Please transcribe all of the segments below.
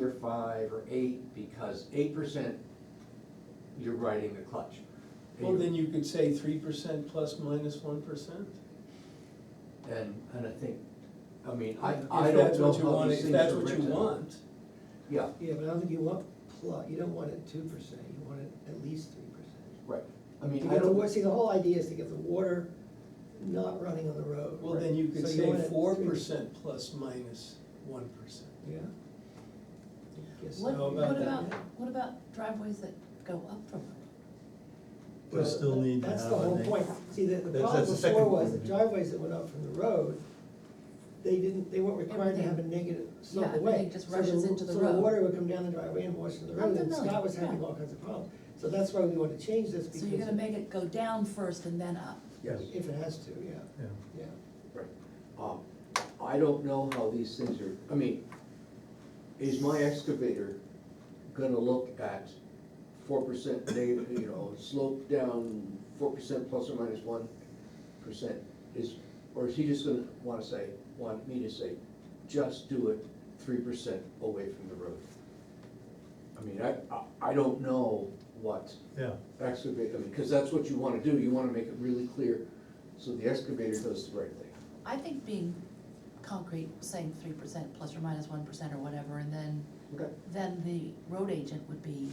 or five or eight, because eight percent, you're riding the clutch. Well, then you could say three percent plus minus one percent. And, and I think, I mean, I, If I that's don't know what you how want, these if things that's are what you written. want. Yeah, Yeah, but I don't think you want plus, you don't want it two percent, you want it at least three percent. right, I To mean, I get the, wa- don't, see, the whole idea is to get the water not running on the road. Well, then you could So want say it four three- percent plus minus one percent. Yeah. Guess What, Know so. about what that. about, what about driveways that go up from the We still need to That's have, the I whole think- point, see, the, the That's- problem that's the second before was the point. driveways that went up from the road, they didn't, they weren't required to have a negative slope Yeah, away. everything just So the- rushes into the So road. the water would come down the driveway and wash into the I'm road, and familiar, Scott was having yeah. all kinds of problems. So that's why we wanna change this, road? So you're gonna because make it go down first and then up? yes, if it has to, yeah, Yeah. yeah. right. Um, I don't know how these things are, I mean, is my excavator gonna look at four percent, you know, slope down four percent plus or minus one percent? Is, or is he just gonna wanna say, want me to say, just do it three percent away from the road? I mean, I, I, I don't know what Yeah, excavate, I mean, because that's what you wanna do, you wanna make it really clear, so the excavator does the right thing. I think being concrete, saying three percent plus or minus one percent or whatever, and then, Okay. then the road agent would be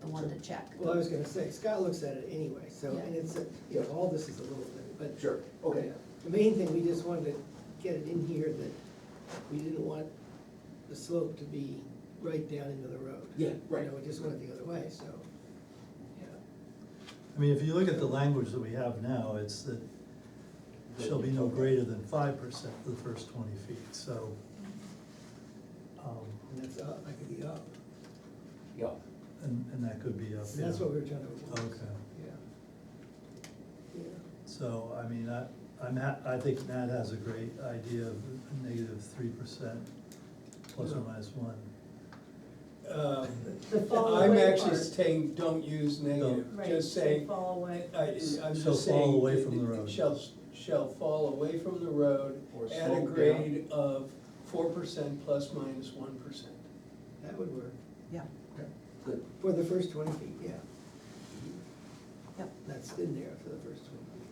the one to check. Well, I was gonna say, Scott looks at it anyway, so, and Yeah. it's, a- you know, all this is a little bit, but. Sure, okay, The main thing, we just wanted to get it in here that we didn't want the slope to be right down into the road. Yeah, right. You know, we just went the other way, so, yeah. I mean, if you look at the language that we have now, it's that shall be no greater than five percent of the first twenty feet, so. um, And that's up, that could be up. yeah, And, and that could be up, So yeah. that's what we were trying to avoid. Okay. Yeah. Yeah. So, I mean, I, I'm ha- I think Nat has a great idea of a negative three percent plus or Yeah. minus one. Um, The fall I'm away actually part. saying, don't use negative, Right, just so say, Fall away. I, I'm just saying. Shall fall away from the it- it road. Shall, shall fall away from the road Or at a slope grade of four percent plus minus one percent. That would work, Yeah, good, for the first twenty feet, yeah, yep. that's in there for the first twenty feet.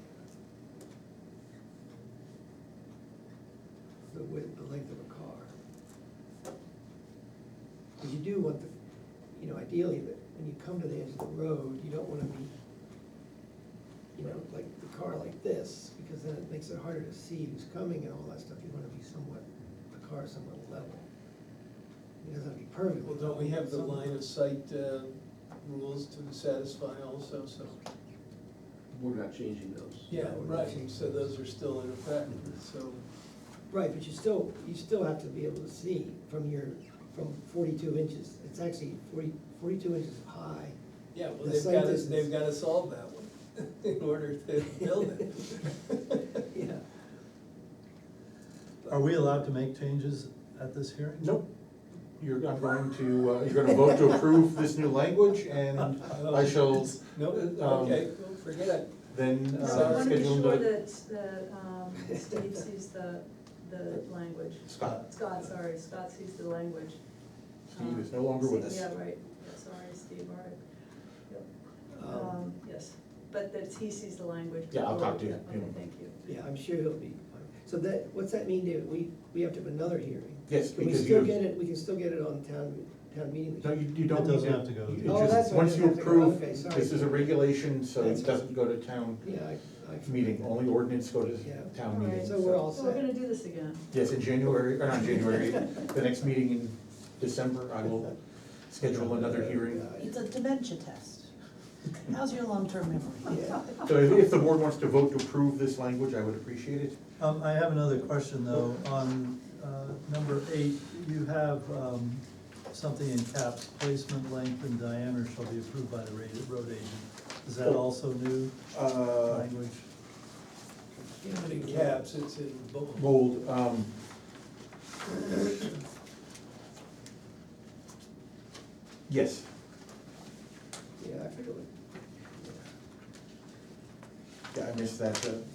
The width, the length of a car. 'Cause you do want the, you know, ideally, that when you come to the edge of the road, you don't wanna be, you know, like the car like this, because then it makes it harder to see who's coming and all that stuff, you wanna be somewhat, the car somewhat level. It doesn't have to be perfect. Well, don't we have the Somewhat. line of sight uh, rules to satisfy also, so? we're not changing those. Yeah, we're not right, changing so those are still in effect, so, Right, but you still, you still have to be able to see from your, from forty-two inches, it's actually 40 42 inches high. yeah, well, The they've sight got to, distance. they've got to solve that one in order to build it. Yeah. Are we allowed to make changes at this hearing? Nope, you're not going to, uh, you're gonna vote to approve this new language, Uh, and Oh. I shall Nope, okay, well, forget it. then No, I uh, wanna be schedule sure the. that, that, um, Steve sees the, the language. Scott. Scott, sorry, Scott sees the language. Steve is Um, no longer with Steve, us. Yeah, right, yeah, sorry, Steve, all right. Yep. Um, Um, yes, but that he sees the language. Yeah, I'll talk to before- you. Okay, thank you. Yeah, I'm sure he'll be, fine. so that, what's that mean, David, we, we have to have another hearing? Yes, Can we because still you- get it, we can still get it on town, town meeting? No, you, you don't. It doesn't need have to go to- you Oh, just- that's why it Once doesn't you have to go. approve, Okay, sorry. this is a regulation, so That's- it doesn't go to town Yeah, I, I. forgot. meeting, only ordinance go to Yeah. town All meeting. right. So we're all So we're set. gonna do this again. Yes, in January, or not January, the next meeting in December, I will schedule another hearing. It's a dementia test. How's your long-term memory? Yeah. So if if the board wants to vote to approve this language, I would appreciate it. Um, I have another question though, on, uh, number eight, you have, um, something in caps, placement length and diameter shall be approved by the ra- road agent. Is that also new Uh, language? Not in caps, it's in bold. bold, um. Yes, Yeah, I forgot what. yeah, I missed that, uh,